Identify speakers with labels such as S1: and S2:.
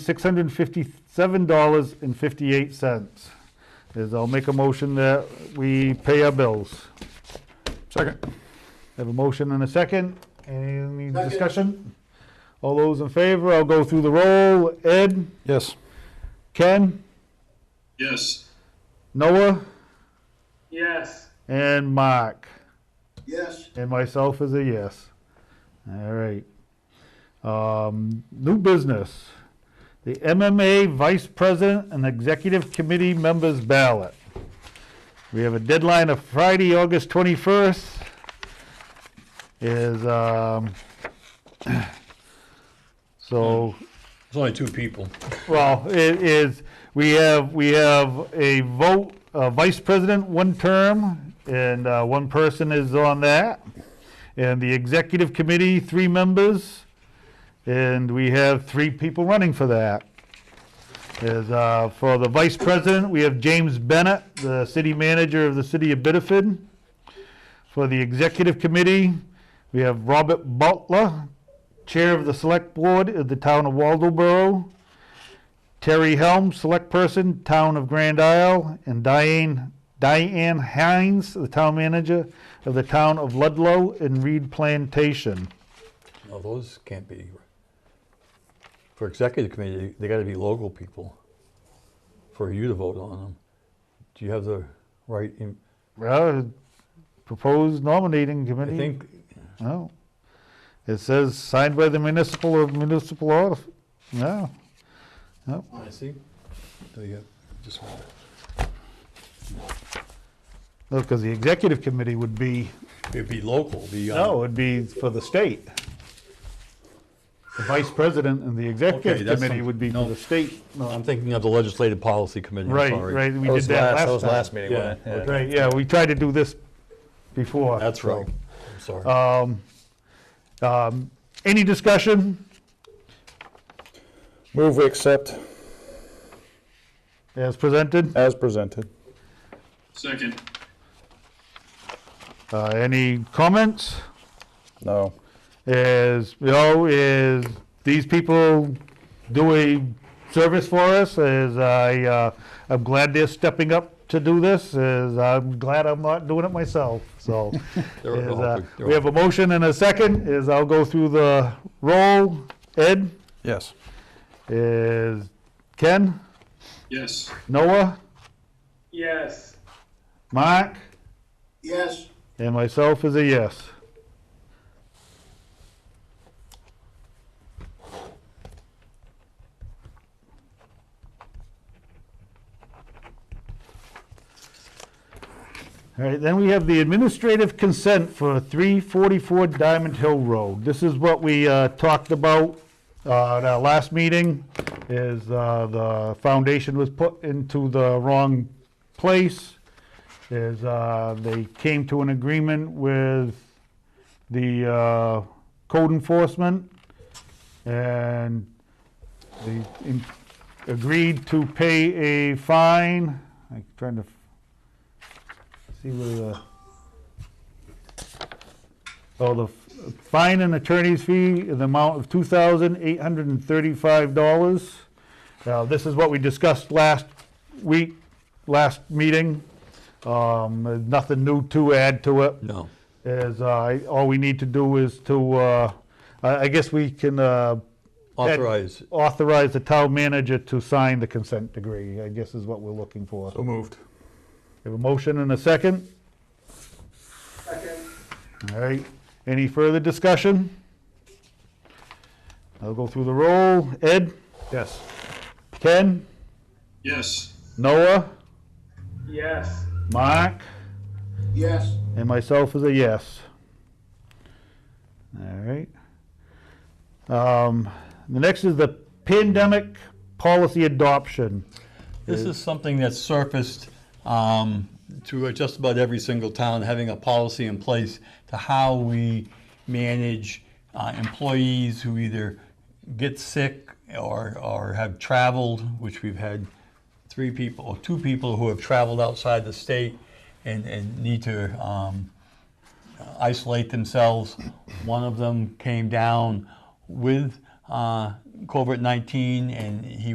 S1: $657.58. Is I'll make a motion that we pay our bills.
S2: Second.
S1: Have a motion and a second. Any
S3: Second.
S1: discussion? All those in favor, I'll go through the roll. Ed,
S2: Yes.
S1: Ken,
S4: Yes.
S1: Noah,
S4: Yes.
S1: and Mark.
S3: Yes,
S1: And myself is a yes. All right. Um, new business. The MMA Vice President and Executive Committee Members Ballot. We have a deadline of Friday, August 21st. Is, um, so,
S5: It's only two people.
S1: well, it is, we have, we have a vote, uh, vice president, one term, and, uh, one person is on that. And the executive committee, three members, and we have three people running for that. Is, uh, for the vice president, we have James Bennett, the city manager of the city of Biddeford. For the executive committee, we have Robert Butler, chair of the select board of the town of Waldoboro. Terry Helm, Select Person, Town of Grand Isle, and Diane, Diane Hines, the Town Manager of the Town of Ludlow and Reed Plantation.
S5: No, those can't be. For executive committee, they gotta be local people for you to vote on them. Do you have the right, in-
S1: Well, proposed nominating
S5: I
S1: committee.
S5: think,
S1: No. It says signed by the municipal or municipal office. No.
S5: I see. Do you, uh, just one.
S1: No, because the executive committee would be,
S5: It'd be local, be. um,
S1: no, it'd be for the state. The vice president and the
S5: Okay,
S1: executive
S5: that's
S1: committee
S5: some-
S1: would be for
S5: no.
S1: the state.
S5: I'm thinking of the legislative policy committee, I'm
S1: Right,
S5: sorry.
S1: right, we did that last time.
S2: That was last meeting, wasn't
S5: Yeah,
S2: it? Yeah.
S1: Right, yeah, we tried to do this before.
S5: That's right, I'm sorry.
S1: Um, um, Any discussion?
S2: Move we accept
S1: As presented,
S2: as presented.
S4: Second.
S1: Uh, any comments?
S2: No.
S1: Is, you know, is these people do a service for us? Is I, uh, I'm glad they're stepping up to do this, is I'm glad I'm not doing it myself, so.
S5: They're
S1: is,
S5: all
S1: uh,
S5: good, they're
S1: We
S5: all
S1: have a motion and a second, is I'll go through the roll. Ed,
S2: Yes.
S1: is Ken,
S4: Yes.
S1: Noah,
S4: Yes.
S1: Mark?
S3: yes,
S1: And myself is a yes. All right, then we have the administrative consent for 344 Diamond Hill Road. This is what we uh, talked about uh, at our last meeting, is uh, the foundation was put into the wrong place is uh, they came to an agreement with the uh, code enforcement and they in- agreed to pay a fine. I'm trying to f- see where the, oh, the f- fine and attorney's fee in the amount of $2,835. Now, this is what we discussed last week, last meeting. Um, there's nothing new to add to it.
S5: No,
S1: Is, uh, all we need to do is to, uh, I, I guess we can, uh,
S5: authorize,
S1: authorize the town manager to sign the consent degree, I guess is what we're looking for.
S5: so moved.
S1: Have a motion and a second? Second. All right, any further discussion? I'll go through the roll. Ed? Yes. Ken?
S4: Yes.
S1: Noah?
S4: Yes.
S1: Mark?
S3: yes,
S1: And myself is a yes. All right. Um, The next is the pandemic policy adoption.
S5: This is something that's surfaced um, to just about every single town, having a policy in place to how we manage uh, employees who either get sick or, or have traveled, which we've had three people, or two people who have traveled outside the state and, and need to um, isolate themselves. One of them came down with uh, COVID-19, and he